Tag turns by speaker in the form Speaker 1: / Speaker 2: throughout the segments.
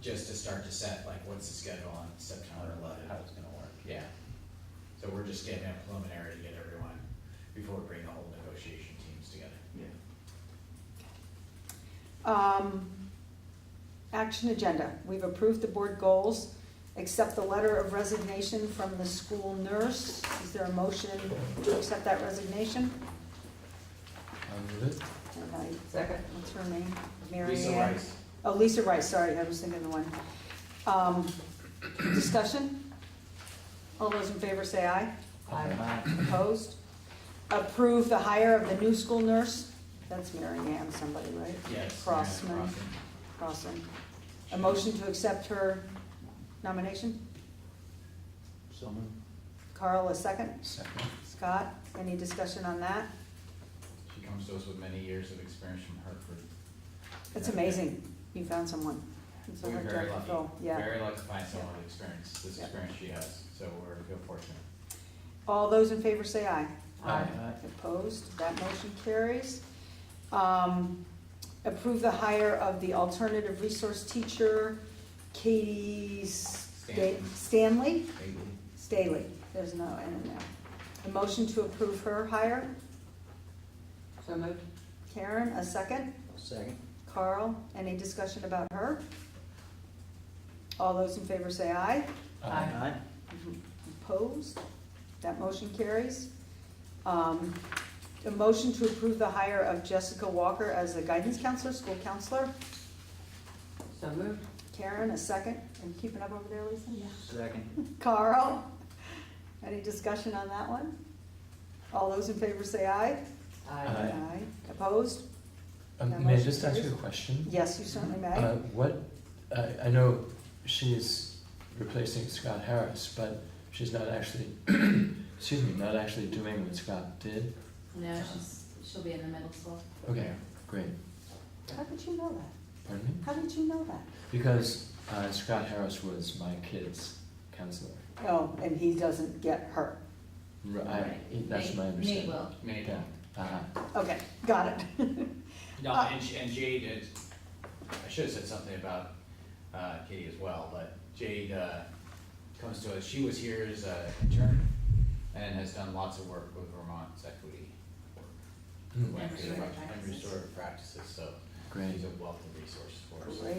Speaker 1: just to start to set, like, what's the schedule on September eleventh, how it's gonna work, yeah. So we're just getting that preliminary to get everyone, before we bring the whole negotiation teams together.
Speaker 2: Yeah.
Speaker 3: Um, Action agenda, we've approved the board goals, accept the letter of resignation from the school nurse. Is there a motion to accept that resignation?
Speaker 4: I'll move it.
Speaker 3: And I-
Speaker 5: Second.
Speaker 3: What's her name? Mary
Speaker 1: Lisa
Speaker 3: Ann-
Speaker 1: Rice,
Speaker 3: Oh, Lisa Rice, sorry, I was thinking the one. Um, Discussion? All those in favor say aye.
Speaker 5: Aye.
Speaker 3: Opposed? Approve the hire of the new school nurse? That's Mary Ann, somebody, right?
Speaker 1: yes. Mary Ann
Speaker 3: Crossman. Crossman. A motion to accept her nomination?
Speaker 4: So moved.
Speaker 3: Carl, a second.
Speaker 4: Second.
Speaker 3: Scott, any discussion on that?
Speaker 1: She comes to us with many years of experience from Hartford.
Speaker 3: It's amazing, you found someone. It's a
Speaker 1: We're
Speaker 3: hard
Speaker 1: very
Speaker 3: job to
Speaker 1: lucky,
Speaker 3: fill, Yeah.
Speaker 1: very lucky to find someone with experience, this
Speaker 3: Yeah.
Speaker 1: experience she has, so we're, feel fortunate.
Speaker 3: All those in favor say aye.
Speaker 5: Aye.
Speaker 3: Opposed, that motion carries. Um, Approve the hire of the alternative resource teacher, Katie Sta-
Speaker 1: Stanton.
Speaker 3: Stanley?
Speaker 1: Thank you.
Speaker 3: Staley, there's no N in there. A motion to approve her hire?
Speaker 5: So moved.
Speaker 3: Karen, a second.
Speaker 4: Second.
Speaker 3: Carl, any discussion about her? All those in favor say aye.
Speaker 5: Aye.
Speaker 3: Opposed? That motion carries. Um, A motion to approve the hire of Jessica Walker as a guidance counselor, school counselor.
Speaker 5: So moved.
Speaker 3: Karen, a second. I'm keeping up over there, Lisa?
Speaker 4: Second.
Speaker 3: Carl, any discussion on that one? All those in favor say aye.
Speaker 4: Aye.
Speaker 3: Opposed? That
Speaker 4: Um, may I
Speaker 3: motion
Speaker 4: just ask you
Speaker 3: carries.
Speaker 4: a question?
Speaker 3: Yes, you certainly may.
Speaker 4: Uh, what, I, I know she's replacing Scott Harris, but she's not actually, excuse me, not actually doing what Scott did?
Speaker 6: No, she's, she'll be in the middle school.
Speaker 4: Okay, great.
Speaker 3: How did you know that?
Speaker 4: Pardon me?
Speaker 3: How did you know that?
Speaker 4: Because, uh, Scott Harris was my kid's counselor.
Speaker 3: Oh, and he doesn't get hurt.
Speaker 4: R- I,
Speaker 6: Right.
Speaker 4: that's
Speaker 6: Nate-
Speaker 4: my understanding.
Speaker 6: Nate will.
Speaker 1: Many
Speaker 4: Yeah, uh-huh.
Speaker 3: Okay, got it.
Speaker 1: No,
Speaker 3: Uh,
Speaker 1: and, and Jade, is- I should have said something about uh, Katie as well, but Jade uh, comes to us, she was here as an intern and has done lots of work with Vermont's equity.
Speaker 3: Hmm.
Speaker 4: Mm,
Speaker 1: work,
Speaker 6: restorative
Speaker 1: And
Speaker 6: practices.
Speaker 1: restorative practices, so
Speaker 4: Great.
Speaker 1: she's a wealth of resources for us.
Speaker 3: Great.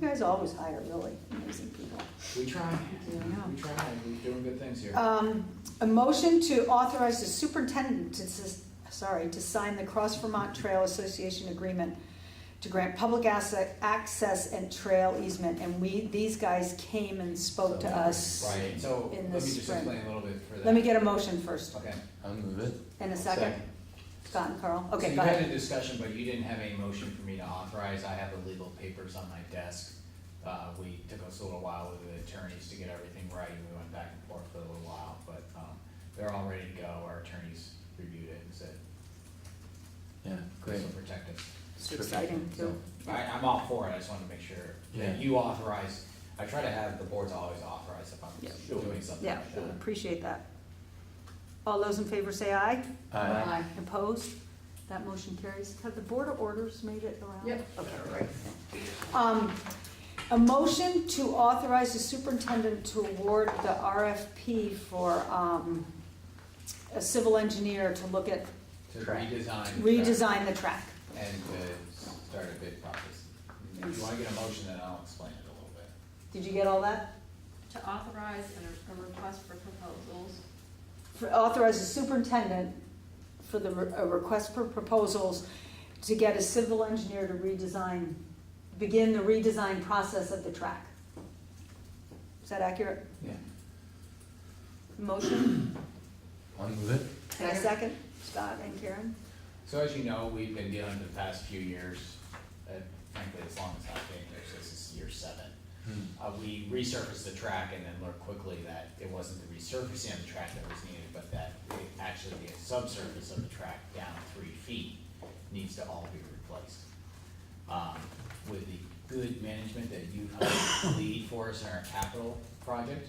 Speaker 3: You guys always hire really amazing people.
Speaker 1: We try,
Speaker 3: Yeah.
Speaker 1: we try, we're doing good things here.
Speaker 3: Um, a motion to authorize the superintendent to, s- sorry, to sign the Cross Vermont Trail Association Agreement to grant public asset, access and trail easement, and we, these guys came and spoke to us.
Speaker 1: Right, so
Speaker 3: in
Speaker 1: let me
Speaker 3: the
Speaker 1: just
Speaker 3: spring.
Speaker 1: explain a little bit for that.
Speaker 3: Let me get a motion first,
Speaker 1: Okay.
Speaker 4: I'll move it.
Speaker 3: and a second, Scott and Carl, okay, go
Speaker 1: So you
Speaker 3: ahead.
Speaker 1: had a discussion, but you didn't have any motion for me to authorize, I have the legal papers on my desk. Uh, we took us a little while with the attorneys to get everything right, and we went back and forth for a little while, but, um, they're all ready to go, our attorneys reviewed it and said,
Speaker 4: Yeah, great.
Speaker 1: this will protect us.
Speaker 3: It's exciting too.
Speaker 1: I, I'm all for it, I just wanted to make sure
Speaker 4: Yeah.
Speaker 1: that you authorize, I try to have the boards always authorize if
Speaker 3: Yeah.
Speaker 1: I'm doing something
Speaker 3: Yeah,
Speaker 1: like that.
Speaker 3: appreciate that. All those in favor say aye.
Speaker 4: Aye.
Speaker 3: Opposed? That motion carries. Have the Board of Orders made it around?
Speaker 5: Yep.
Speaker 3: Okay, right. Um, A motion to authorize the superintendent to award the RFP for um, a civil engineer to look at,
Speaker 1: To redesign.
Speaker 3: redesign the track.
Speaker 1: And to start a bid process. If you wanna get a motion, then I'll explain it a little bit.
Speaker 3: Did you get all that?
Speaker 6: To authorize a, a request for proposals.
Speaker 3: For- Authorize the superintendent for the, re- a request for proposals to get a civil engineer to redesign, begin the redesign process of the track. Is that accurate?
Speaker 4: Yeah.
Speaker 3: Motion?
Speaker 4: I'll move it.
Speaker 3: And a second, Scott and Karen.
Speaker 1: So as you know, we've been dealing for the past few years, uh, frankly, as long as I've been here, so this is year seven.
Speaker 4: Hmm.
Speaker 1: Uh, we resurfaced the track and then learned quickly that it wasn't the resurfacing of the track that was needed, but that it actually the subsurface of the track down three feet needs to all be replaced. Um, with the good management that you helped lead for us in our capital project,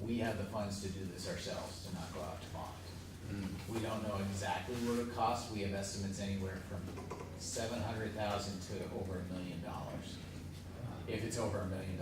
Speaker 1: we have the funds to do this ourselves, to not go out to bond.
Speaker 4: Mm.
Speaker 1: We don't know exactly what it costs, we have estimates anywhere from seven hundred thousand to over a million dollars. If it's over a million